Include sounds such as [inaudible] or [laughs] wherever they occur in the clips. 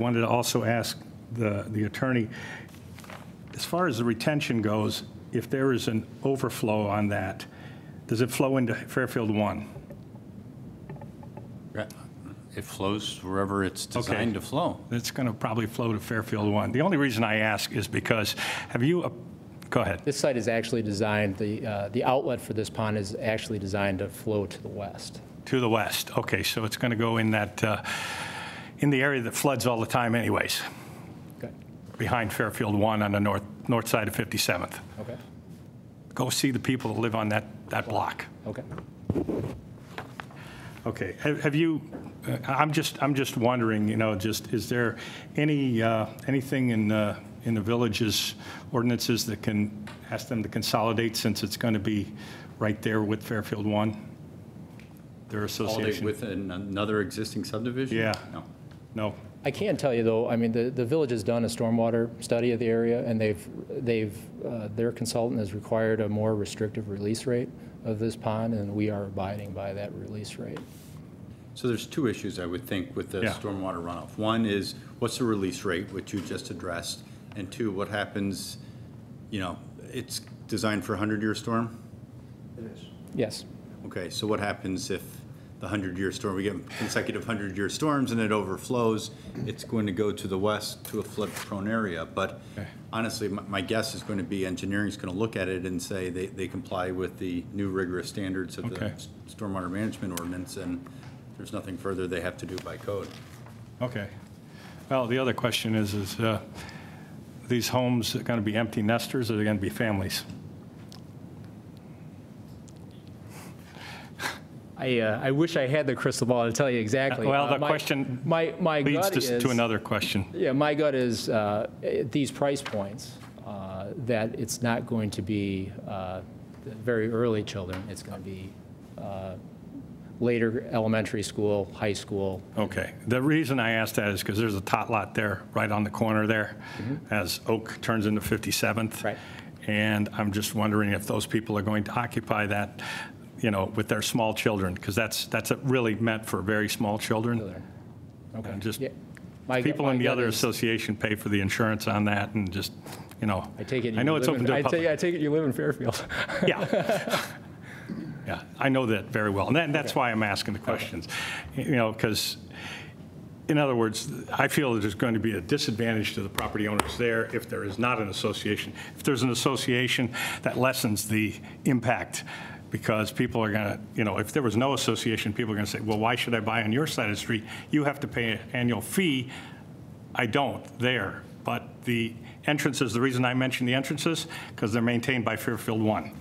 Wanted to also ask the the attorney, as far as the retention goes, if there is an overflow on that, does it flow into Fairfield 1? It flows wherever it's designed to flow. It's going to probably flow to Fairfield 1. The only reason I ask is because, have you, uh, go ahead. This site is actually designed, the, uh, the outlet for this pond is actually designed to flow to the west. To the west, okay, so it's going to go in that, uh, in the area that floods all the time anyways, Okay. behind Fairfield 1 on the north, north side of 57th. Okay, Go see the people that live on that, that block. okay. Okay, have have you, uh, I'm just, I'm just wondering, you know, just, is there any, uh, anything in, uh, in the village's ordinances that can, ask them to consolidate since it's going to be right there with Fairfield 1? Their All day association? within another existing subdivision? Yeah. No. No? I can tell you, though, I mean, the, the village has done a stormwater study of the area, and they've, they've, uh, their consultant has required a more restrictive release rate of this pond, and we are abiding by that release rate. So there's two issues, I would think, with the Yeah. stormwater runoff. One is, what's the release rate, which you just addressed? And two, what happens, you know, it's designed for a 100-year storm? Yes, Okay, so what happens if the 100-year storm, we get consecutive 100-year storms and it overflows? It's going to go to the west to a flood-prone area. But honestly, my my guess is going to be engineering's going to look at it and say they they comply with the new rigorous standards of the Okay. s- stormwater management ordinance, and there's nothing further they have to do by code. Okay. Well, the other question is, is uh, these homes going to be empty nesters or are they going to be families? I, uh, I wish I had the crystal ball to tell you exactly. Well, Uh, the my- question My, my Leads gut to- is. to another question. Yeah, my gut is, uh, at these price points, uh, that it's not going to be uh, the very early children. It's going to be uh, later elementary school, high school. Okay. The reason I asked that is because there's a tot lot there, right on the corner there, as Oak turns into 57th. Mm-hmm. Right. And I'm just wondering if those people are going to occupy that, you know, with their small children, because that's, that's really meant for very small children. Children. Okay. And just, Yeah. My- people my in the gut other is- association pay for the insurance on that and just, you know. I take it. I you know it's live open in- to I the take- public. I take it you live [laughs] in Fairfield. [laughs] Yeah. Yeah, I know that very well. And that- that's why I'm asking the questions. You know, because, in other words, I feel that there's going to be a disadvantage to the property owners there if there is not an association. If there's an association, that lessens the impact, because people are going to, you know, if there was no association, people are going to say, well, why should I buy on your side of the street? You have to pay an annual fee. I don't there. But the entrances, the reason I mention the entrances, because they're maintained by Fairfield One.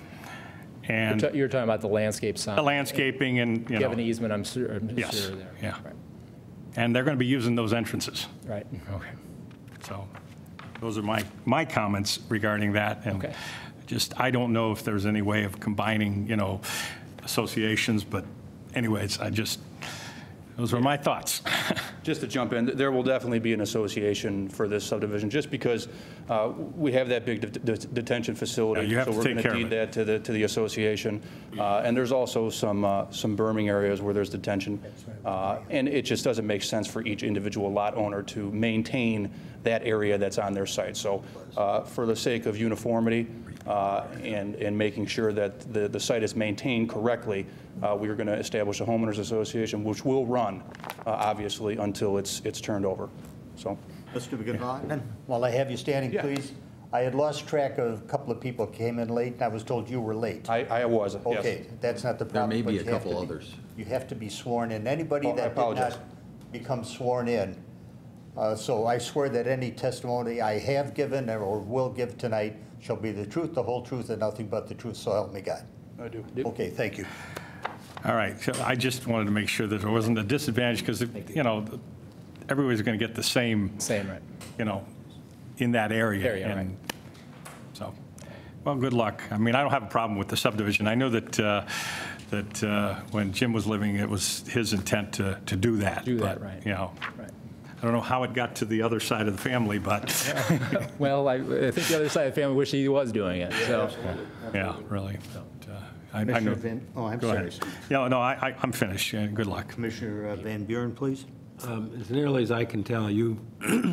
And You're talking about the landscape sign. the landscaping and, you You have an know, easement, I'm sure, I'm Yes, sure there. yeah. Right, and they're going to be using those entrances. Right, okay. So those are my, my comments regarding that. And Okay. just, I don't know if there's any way of combining, you know, associations, but anyways, I just, those were my thoughts. [laughs] Just to jump in, there will definitely be an association for this subdivision, just because uh, we have that big det- det- detention facility. Yeah, you have to take care of So we're it. going to deed that to the, to the association. Uh, And there's also some, uh, some berming areas where there's detention. Uh, And it just doesn't make sense for each individual lot owner to maintain that area that's on their site. So uh, for the sake of uniformity uh, and, and making sure that the, the site is maintained correctly, uh, we are going to establish a homeowners association, which will run, uh, obviously, until it's, it's turned over. So, Mr. McGivern, While I have you standing, Yeah. please, I had lost track of a couple of people came in late, and I was told you were late. I, I was, yes. Okay, that's not the problem. may but be a you have couple to be- others. You have to be sworn in. Anybody Oh, I that did apologize. not become sworn in. uh, So I swear that any testimony I have given or will give tonight shall be the truth, the whole truth, and nothing but the truth, so help me God. I do. Okay, thank you. All right, so I just wanted to make sure that there wasn't a disadvantage because, you know, everybody's going to get the same, Same, right. you know, in that area. Area, right. and So, well, good luck. I mean, I don't have a problem with the subdivision. I know that, uh, that uh, when Jim was living, it was his intent to, to do that. Do that, but, right. You know, Right. I don't know how it got to the other side of the family, [laughs] but, Well, I, I think the other side of the family wished he was doing it, so. yeah, really. but, uh, I I know- Commissioner Van, oh, I'm Go sorry. ahead. No, no, I, I- I'm finished. Yeah, Good luck. Commissioner uh, Van Buren, please. Um, As nearly as I can tell, you